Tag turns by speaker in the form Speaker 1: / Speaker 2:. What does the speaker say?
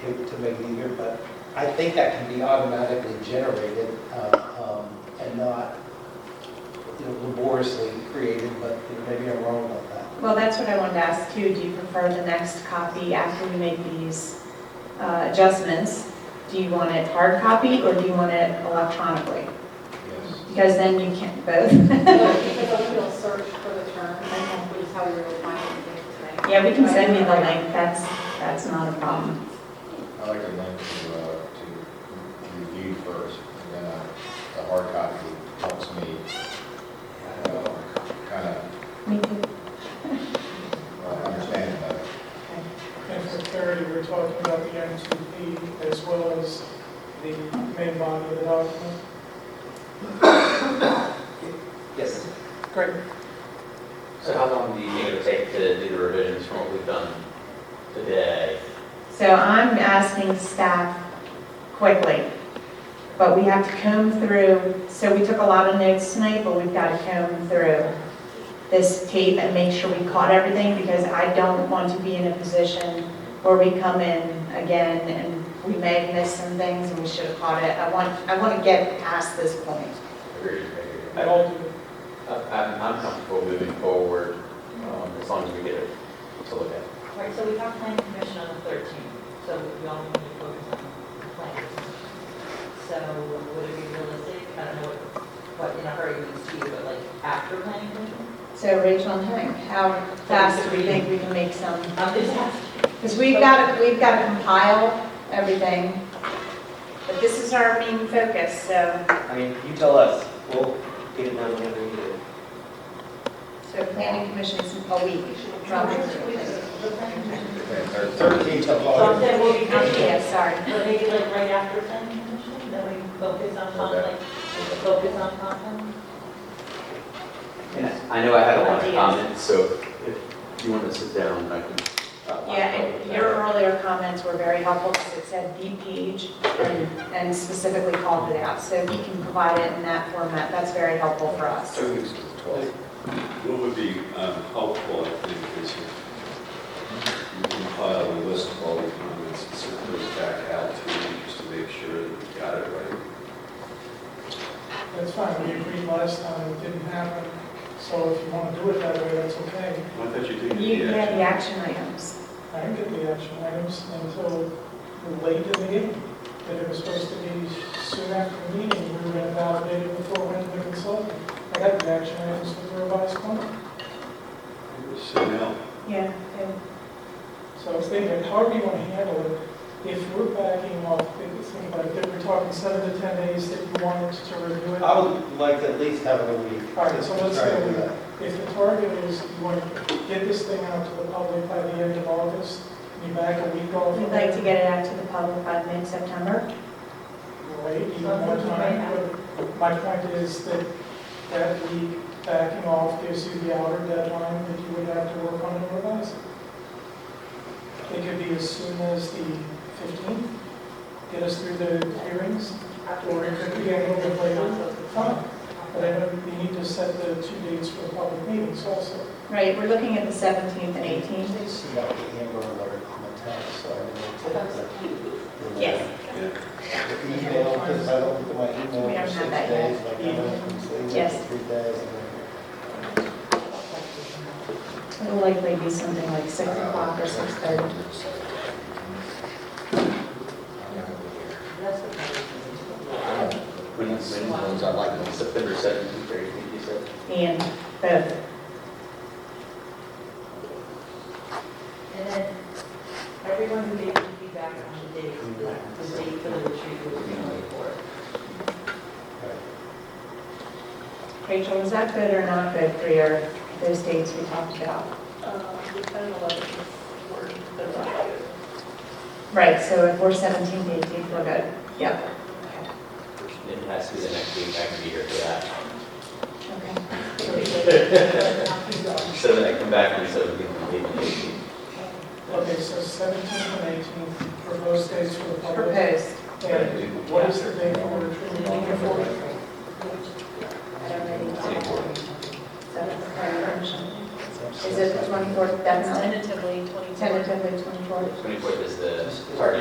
Speaker 1: to to make it easier, but I think that can be automatically generated uh, um, and not you know, laboriously created, but you know, maybe I'm wrong about that.
Speaker 2: Well, that's what I wanted to ask you. Do you prefer the next copy after we make these uh, adjustments? Do you want it hard copy or do you want it electronically?
Speaker 1: Yes.
Speaker 2: Because then you can't both.
Speaker 3: Because I will search for the term, and which is how we were finding things, right?
Speaker 2: Yeah, we can send you the link. That's, that's not a problem.
Speaker 4: I like the link to, uh, to review first, and then uh, the hard copy helps me uh, kind of
Speaker 2: Me too.
Speaker 4: uh, understand better.
Speaker 5: And for clarity, we're talking about the M2P as well as the main body of the document.
Speaker 1: Yes.
Speaker 5: Great.
Speaker 6: So how long do you think it'll take to do the revisions from what we've done today?
Speaker 2: So I'm asking staff quickly, but we have to comb through, so we took a lot of notes tonight, but we've got to comb through this tape and make sure we caught everything, because I don't want to be in a position where we come in again and we may have missed some things and we should have caught it. I want, I want to get past this point.
Speaker 6: Agreed.
Speaker 5: I don't do
Speaker 6: I'm, I'm comfortable moving forward, um, as long as we get it to look at.
Speaker 7: Right, so we have planning commission on the 13th, so we all need to focus on the plan. So would it be realistic, I don't know what, what in a hurry we see, but like after planning commission?
Speaker 2: So Rachel and Hank, how fast do we think we can make some
Speaker 7: I'm just asking.
Speaker 2: Because we've got to, we've got to compile everything, but this is our main focus, so,
Speaker 1: I mean, you tell us, we'll get it done whenever you do.
Speaker 2: so planning oh, commission's a week.
Speaker 7: The planning commission.
Speaker 4: Okay, third-
Speaker 1: Thirteen to
Speaker 7: So I'm
Speaker 1: August.
Speaker 7: saying we'll be
Speaker 2: Yeah,
Speaker 7: busy,
Speaker 2: sorry.
Speaker 7: but maybe like right after planning commission, then we focus on conflict, focus on conflict.
Speaker 1: Yes.
Speaker 6: I know I had a lot of
Speaker 2: Ideas.
Speaker 6: comments, so if you want to sit down, I can. uh,
Speaker 2: Yeah, and your earlier comments were very helpful, because it said the page and and specifically called it out, so if you can provide it in that format, that's very helpful for us.
Speaker 4: Two weeks to the twelfth.
Speaker 8: What would be um, helpful, I think, is if you compile a list of all the comments and send those back out to you just to make sure that we got it right.
Speaker 5: That's fine, we agreed last time, it didn't happen, so if you want to do it that way, that's okay.
Speaker 8: I thought you did
Speaker 2: You
Speaker 8: the
Speaker 2: you have the
Speaker 8: action.
Speaker 2: action items.
Speaker 5: I didn't get the action items until late in the meeting, that it was supposed to be soon after the meeting, we were going to validate it before we went to the consultant. I got the action items with the revised plan,
Speaker 8: So now,
Speaker 2: Yeah.
Speaker 5: so I was thinking, however you want to handle it, if we're backing off, think about it, if we're talking seven to 10 days that you wanted to review it.
Speaker 1: I would like to at least have it a week.
Speaker 5: All right, so let's
Speaker 1: Sorry
Speaker 5: go.
Speaker 1: for that.
Speaker 5: If the target is you want to get this thing out to the public by the end of August, be back a week off.
Speaker 2: We'd like to get it out to the public by mid-September.
Speaker 5: Wait, even more time, but my point is that that week backing off gives you the outer deadline that you would have to work on and revise. it. It could be as soon as the fifteenth, get us through the hearings, or it could be a little bit later. Fine, but I know we need to set the two dates for the public meetings also.
Speaker 2: Right, we're looking at the 17th and 18th.
Speaker 1: This is about the Amber Alert on the town, so I didn't take the.
Speaker 2: Yes.
Speaker 8: yeah.
Speaker 1: The email, because I don't look at my
Speaker 2: We
Speaker 1: email
Speaker 2: don't
Speaker 1: for six
Speaker 2: have that
Speaker 1: days, like I went from six
Speaker 2: Yes.
Speaker 1: to three days. and then-
Speaker 2: It'll likely be something like six o'clock or six thirty.
Speaker 7: That's what
Speaker 6: I don't know. When, when is
Speaker 4: Ones I like, ones that-
Speaker 6: September seventeenth, or eighteenth, you said?
Speaker 2: And both,
Speaker 7: And then everyone who gave feedback on the date, like the date for the retreat was the only four.
Speaker 2: Rachel, was that good or not good for your, those dates we talked about?
Speaker 3: Uh, the ten and eleven is word, they're not good.
Speaker 2: Right, so if we're 17, 18, we're good. Yep.
Speaker 6: It has to be the next week, I can be here for that.
Speaker 2: Okay.
Speaker 6: So then I come back on the seventeenth and eighteenth.
Speaker 5: Okay, so seventeenth and eighteenth, proposed dates for the public.
Speaker 2: Proposed.
Speaker 5: And what is the date for retreat?
Speaker 2: I don't know the date. So it's a prior version.
Speaker 1: It's
Speaker 2: Is it the 24th deadline?
Speaker 3: Tentatively, twenty-four.
Speaker 2: Tentatively 24th?
Speaker 6: Twenty-fourth is the
Speaker 1: Just-
Speaker 6: target.